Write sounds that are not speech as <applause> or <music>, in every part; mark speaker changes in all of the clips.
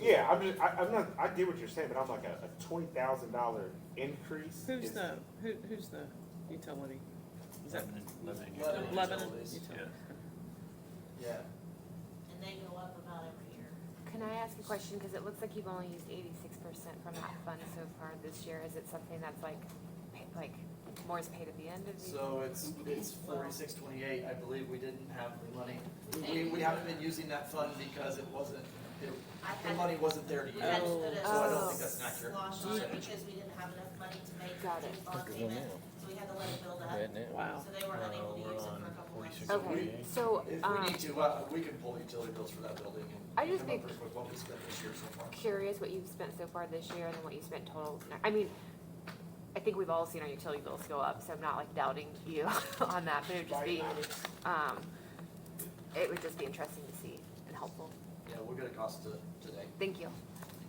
Speaker 1: Yeah, I'm just, I, I'm not, I get what you're saying, but I'm like a, a twenty thousand dollar increase.
Speaker 2: Who's
Speaker 1: is-
Speaker 2: the, who, who's the utility? Is that
Speaker 3: Lebanon, Lebanon.
Speaker 4: Lebanon
Speaker 2: Lebanon
Speaker 4: Utilities.
Speaker 2: Utility?
Speaker 4: Yeah,
Speaker 5: and they go up about every year.
Speaker 6: Can I ask a question? Because it looks like you've only used eighty-six percent from that fund so far this year. Is it something that's like, pa- like, more is paid at the end of the?
Speaker 4: so it's, it's forty-six twenty-eight, I believe we didn't have the money. We, we- we haven't been using that fund because it wasn't, it-
Speaker 5: I
Speaker 4: the
Speaker 5: had-
Speaker 4: money wasn't there to
Speaker 5: We
Speaker 4: use.
Speaker 5: had to
Speaker 2: Oh.
Speaker 5: put a
Speaker 6: So I don't think
Speaker 4: that's an accurate
Speaker 5: Slosh on it
Speaker 4: percentage.
Speaker 5: because we didn't have enough money to make the
Speaker 6: Got it.
Speaker 5: bond payment, so we had to let it build up.
Speaker 2: Wow.
Speaker 5: So they were
Speaker 3: Uh,
Speaker 5: unable to
Speaker 3: we're
Speaker 5: use it
Speaker 3: on
Speaker 5: for a couple months.
Speaker 3: 46.
Speaker 6: Okay, so,
Speaker 4: If we
Speaker 6: um,
Speaker 4: need to, uh, we can pull utility bills for that building
Speaker 6: I
Speaker 4: and
Speaker 6: just
Speaker 4: come
Speaker 6: think-
Speaker 4: up with what we spent this year so far.
Speaker 6: curious what you've spent so far this year and then what you spent total. ne- I mean, I think we've all seen our utility bills go up, so I'm not like doubting you <laughs> on that, but it would just be, um, it would just be interesting to see and helpful.
Speaker 4: Yeah, we'll get a cost to, today.
Speaker 6: Thank you.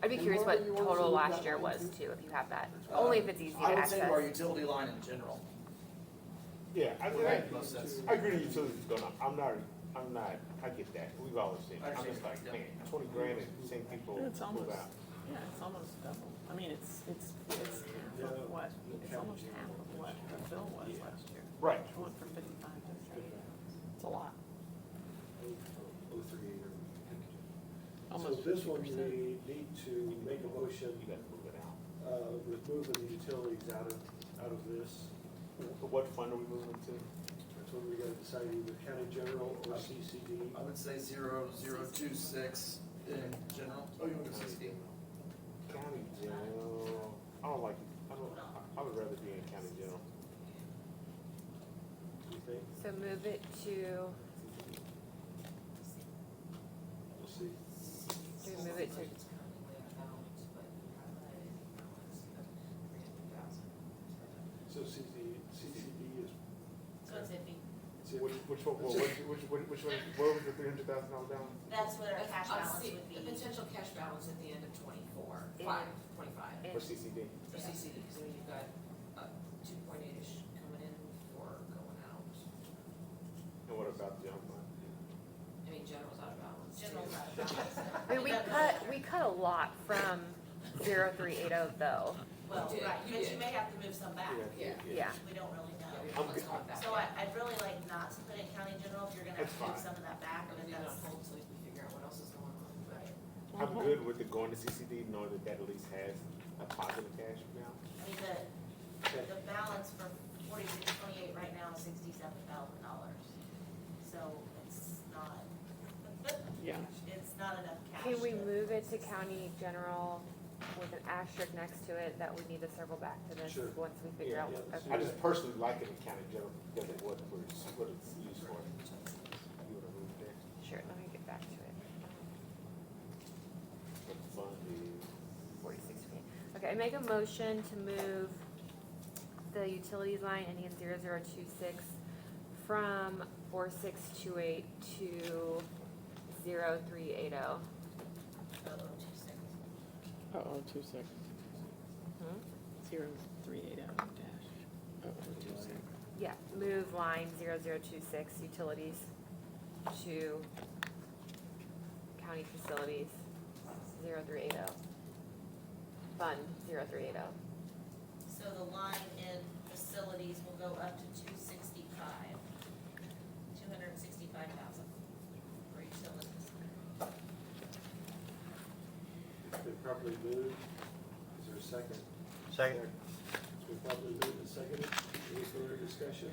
Speaker 6: I'd be
Speaker 7: And
Speaker 6: curious
Speaker 7: Laura,
Speaker 6: what
Speaker 7: you wanna
Speaker 6: total
Speaker 7: leave
Speaker 6: last
Speaker 7: that
Speaker 6: year
Speaker 7: one
Speaker 6: was
Speaker 7: too?
Speaker 6: too, if you have that, only if it's easy to
Speaker 4: Um, I would
Speaker 6: access.
Speaker 4: say to our utility line in general,
Speaker 1: Yeah, I,
Speaker 4: would
Speaker 1: I,
Speaker 4: make most sense.
Speaker 1: I agree the utilities going up, I'm not, I'm not, I get that, we've always seen, it. I'm just like,
Speaker 4: Understand, yeah.
Speaker 1: man, twenty grand and seeing people
Speaker 2: Yeah, it's
Speaker 1: move
Speaker 2: almost-
Speaker 1: out.
Speaker 2: Yeah, it's almost double. I mean, it's, it's, it's half of what, it's almost half of what the bill was last year.
Speaker 1: Right,
Speaker 2: It went from fifty-five to thirty. It's a lot,
Speaker 7: Oh, three eight or. So
Speaker 2: almost
Speaker 7: this
Speaker 2: fifty
Speaker 7: one,
Speaker 2: percent.
Speaker 7: we need to make a motion,
Speaker 1: you gotta move it out.
Speaker 7: uh, removing the utilities out of, out of this.
Speaker 1: Wh- What fund are we moving to?
Speaker 7: That's when we gotta decide either county general or CCD.
Speaker 4: I would say zero, zero, two, six in general. Oh, you want to sixty?
Speaker 1: County general, I don't like, I don't, I- I would rather be in county general.
Speaker 7: You think?
Speaker 6: So move it to, do
Speaker 7: We'll see.
Speaker 6: we move it to,
Speaker 7: So CCD, CCD is,
Speaker 5: So it's iffy.
Speaker 7: it's in-
Speaker 1: Which, which one, which, which, which, which one, where was the three hundred thousand dollar balance?
Speaker 5: That's what our cash
Speaker 8: Uh,
Speaker 5: balance
Speaker 8: see,
Speaker 5: would be.
Speaker 8: The potential cash balance at the end of twenty-four,
Speaker 6: Yeah.
Speaker 8: five, twenty-five,
Speaker 1: For CCD?
Speaker 8: for CCD, so you've got, uh, two point eight-ish coming in or going out.
Speaker 1: And what about the junk fund?
Speaker 8: I mean, general's out of balance. too.
Speaker 5: General fund balance.
Speaker 6: I mean, we
Speaker 5: It doesn't
Speaker 6: cut,
Speaker 5: matter.
Speaker 6: we cut a lot from zero three eight oh though,
Speaker 5: Well,
Speaker 8: You did,
Speaker 5: right,
Speaker 8: you
Speaker 5: but you
Speaker 8: did.
Speaker 5: may have to move some back.
Speaker 8: Yeah.
Speaker 6: yeah.
Speaker 5: We don't really
Speaker 8: Yeah,
Speaker 5: know.
Speaker 8: we
Speaker 1: I'm
Speaker 8: don't want
Speaker 1: good.
Speaker 8: to hold that
Speaker 5: So I,
Speaker 8: back.
Speaker 5: I'd really like not to put in county general if you're gonna have
Speaker 1: That's
Speaker 5: to move
Speaker 1: fine.
Speaker 5: some of that back,
Speaker 8: And
Speaker 5: but
Speaker 8: then you
Speaker 5: that's.
Speaker 8: don't hold till we figure out what else is going on, but.
Speaker 5: Right.
Speaker 1: I'm good with it going to CCD, knowing that that at least has a positive cash balance.
Speaker 5: I mean, the, the balance for forty-six twenty-eight right now is sixty-seven thousand dollars. So it's not, <laughs>
Speaker 2: Yeah.
Speaker 5: it's not enough cash.
Speaker 6: Can we
Speaker 5: to-
Speaker 6: move it to county general with an asterisk next to it that we need to circle back to this
Speaker 7: Sure.
Speaker 6: once we figure
Speaker 1: Yeah,
Speaker 6: out?
Speaker 7: yeah, let's
Speaker 1: I
Speaker 6: okay.
Speaker 1: just personally like it in county general because of what we're, what it's used for. You would have moved there.
Speaker 6: Sure, let me get back to it.
Speaker 1: But the fund is,
Speaker 6: Forty-six, okay, I make a motion to move the utilities line ending in zero zero two six from four six two eight to zero three eight oh.
Speaker 5: Oh, two seconds.
Speaker 2: Uh-oh, Oh, two six.
Speaker 6: Hmm?
Speaker 2: Zero, three, eight, oh, dash, uh-oh, two six.
Speaker 6: Yeah, move line zero zero two six utilities to county facilities, zero three eight oh. Fund, zero three eight oh.
Speaker 5: So the line in facilities will go up to two sixty-five, two hundred and sixty-five thousand for utilities.
Speaker 7: It's been properly moved. Is there a second?
Speaker 3: Second.
Speaker 7: It's been properly moved and seconded. Any further discussion?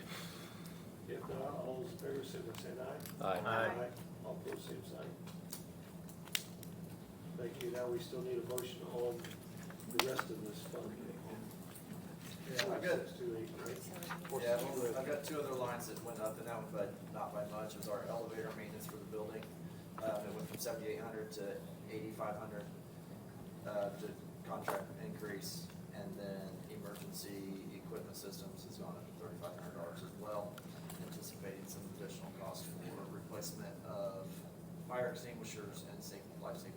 Speaker 7: If not, all those in favor, say by saying aye.
Speaker 6: Aye.
Speaker 7: All opposed, same sign. Thank you. Now we still need a motion on the rest of this fund.
Speaker 4: Yeah, we're good.
Speaker 7: Six, two, eight, right?
Speaker 4: Yeah, well, I've got two other lines that went up and that one, but not by much, it was our elevator maintenance for the building. Um, it went from seventy-eight hundred to eighty-five hundred, uh, to contract increase. And then emergency equipment systems has gone up to thirty-five hundred dollars as well, anticipating some additional costs for replacement of fire extinguishers and safety, life safety